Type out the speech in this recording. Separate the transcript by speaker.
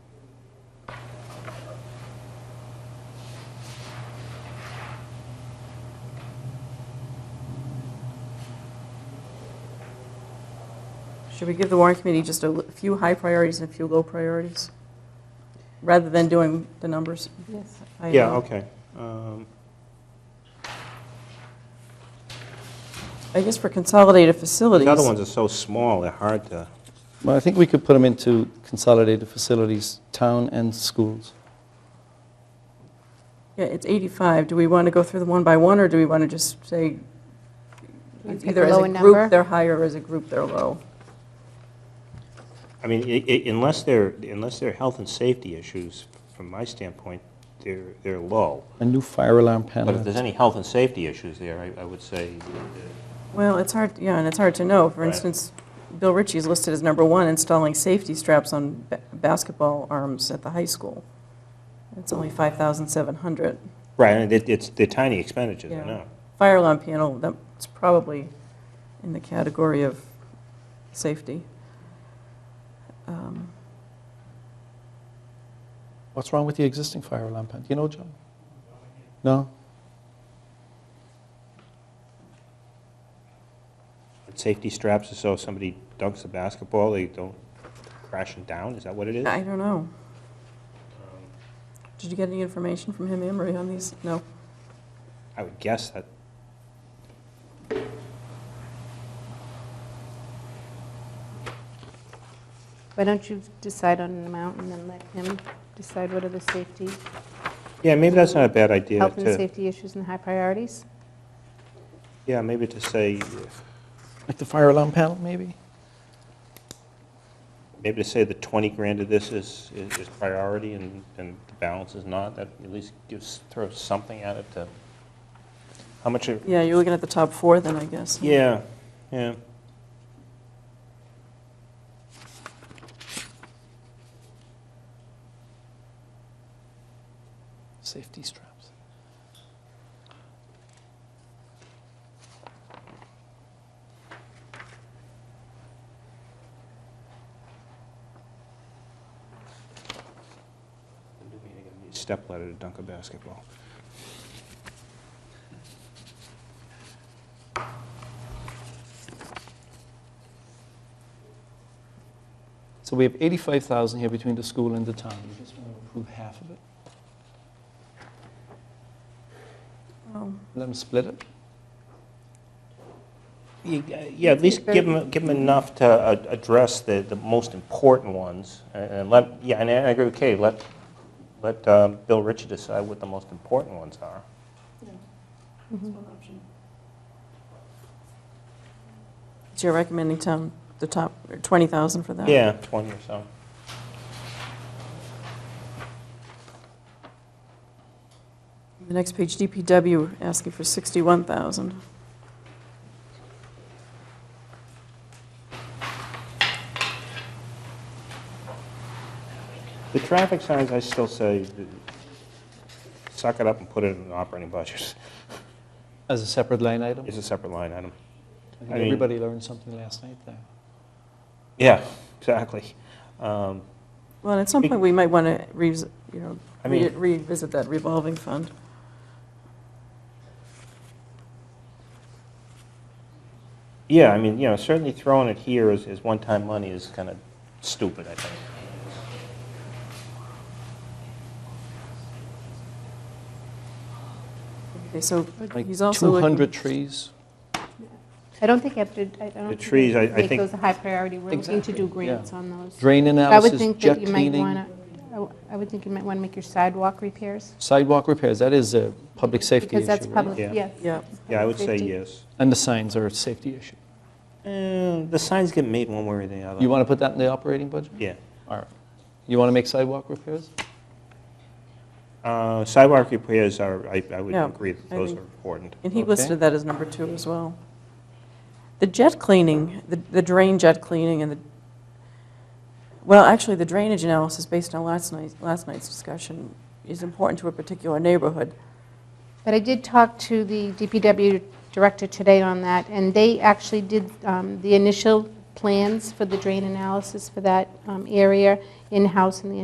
Speaker 1: Should we give the warrant committee just a l- few high priorities and a few low priorities? Rather than doing the numbers?
Speaker 2: Yes.
Speaker 1: I,
Speaker 3: Yeah,
Speaker 1: uh,
Speaker 3: okay. Um,
Speaker 1: I guess for consolidated facilities.
Speaker 3: The other ones are so small, they're hard to,
Speaker 4: Well, I think we could put them into consolidated facilities, town and schools.
Speaker 1: Yeah, it's 85. Do we want to go through them one by one, or do we want to just say
Speaker 2: Wanna pick
Speaker 1: either
Speaker 2: a
Speaker 1: as
Speaker 2: lower
Speaker 1: a
Speaker 2: number?
Speaker 1: group, they're high, or as a group, they're low?
Speaker 3: I mean, i- i- unless they're, unless they're health and safety issues, from my standpoint, they're, they're low.
Speaker 4: A new fire alarm panel.
Speaker 3: But if there's any health and safety issues there, I- I would say, uh,
Speaker 1: Well, it's hard, yeah, and it's hard to know. For
Speaker 3: Right.
Speaker 1: instance, Bill Ritchie is listed as number one, installing safety straps on ba- basketball arms at the high school. It's only 5,700.
Speaker 3: right, and it- it's, they're tiny expenditures, I
Speaker 1: Yeah.
Speaker 3: know.
Speaker 1: Fire alarm panel, that's probably in the category of safety. Um,
Speaker 4: What's wrong with the existing fire alarm panel? Do you know, John? No?
Speaker 3: But Safety straps, are so if somebody dunks a basketball, they don't crash it down, is that what it is?
Speaker 1: I don't know. Did you get any information from him, Emery, on these? No?
Speaker 3: I would guess that,
Speaker 2: Why don't you decide on an amount and then let him decide what are the safety,
Speaker 3: yeah, maybe that's not a bad idea
Speaker 2: health and
Speaker 3: to,
Speaker 2: safety issues and high priorities?
Speaker 3: yeah, maybe to say, uh,
Speaker 4: Like the fire alarm panel, maybe?
Speaker 3: maybe to say the 20 grand of this is, is is priority and, and the balance is not, that at least gives, throws something at it to, how much, are-
Speaker 1: Yeah, you're looking at the top four then, I guess. huh?
Speaker 3: yeah, yeah.
Speaker 4: Safety straps.
Speaker 3: Step ladder to dunk a basketball.
Speaker 4: So we have 85,000 here between the school and the town. We just want to approve half of it.
Speaker 2: Um.
Speaker 1: Oh,
Speaker 4: Let them split it.
Speaker 3: Yeah, at least give them, enough to uh, address the, the most important ones, and and let, yeah, and I agree with Katie, let, let uh, Bill Ritchie decide what the most important ones are.
Speaker 2: Mm-hmm.
Speaker 1: So you're recommending town, the top, or 20,000 for that?
Speaker 3: Yeah, 20 or so.
Speaker 1: The next page, DPW, asking for 61,000.
Speaker 3: The traffic signs, I still say, suck it up and put it in the operating budget.
Speaker 4: As a separate line item?
Speaker 3: It's a separate line item.
Speaker 4: I think
Speaker 3: I mean-
Speaker 4: everybody learned something last night there.
Speaker 3: Yeah, exactly. Um,
Speaker 1: Well, and at some point, we might want to revisit, you know,
Speaker 3: I
Speaker 1: re-
Speaker 3: mean-
Speaker 1: revisit that revolving fund.
Speaker 3: Yeah, I mean, you know, certainly throwing it here as, as one-time money is kind of stupid, I think.
Speaker 1: Okay, so
Speaker 4: Like
Speaker 1: he's also looking...
Speaker 4: 200 trees.
Speaker 2: I don't think after, I I don't. think we
Speaker 3: trees, I- I
Speaker 2: Make
Speaker 3: think-
Speaker 2: those a high priority, we're looking to
Speaker 4: Exactly,
Speaker 2: do
Speaker 4: yeah.
Speaker 2: grants on those.
Speaker 4: Drain
Speaker 2: I would
Speaker 4: analysis,
Speaker 2: think
Speaker 4: jet
Speaker 2: that you might
Speaker 4: cleaning,
Speaker 2: wanna- I w- I would think you might want to make your sidewalk repairs.
Speaker 4: sidewalk repairs, that is a public safety
Speaker 2: Because
Speaker 4: issue,
Speaker 2: that's
Speaker 4: right?
Speaker 2: public,
Speaker 3: Yeah.
Speaker 2: yes.
Speaker 1: Yeah.
Speaker 3: Yeah, I would say
Speaker 2: Safety.
Speaker 3: yes.
Speaker 4: And the signs are a safety issue.
Speaker 3: Eh, The signs get made one way or the other.
Speaker 4: You want to put that in the operating budget?
Speaker 3: Yeah.
Speaker 4: All right. You want to make sidewalk repairs?
Speaker 3: Uh, Sidewalk repairs are, I I would
Speaker 1: Yeah,
Speaker 3: agree that
Speaker 1: I
Speaker 3: those
Speaker 1: think-
Speaker 3: are important.
Speaker 1: And he
Speaker 4: Okay.
Speaker 1: listed that as number two as well. The jet cleaning, the the drain jet cleaning and the, well, actually, the drainage analysis based on last night's, last night's discussion is important to a particular neighborhood.
Speaker 2: But I did talk to the DPW director today on that, and they actually did um, the initial plans for the drain analysis for that um, area in-house, and the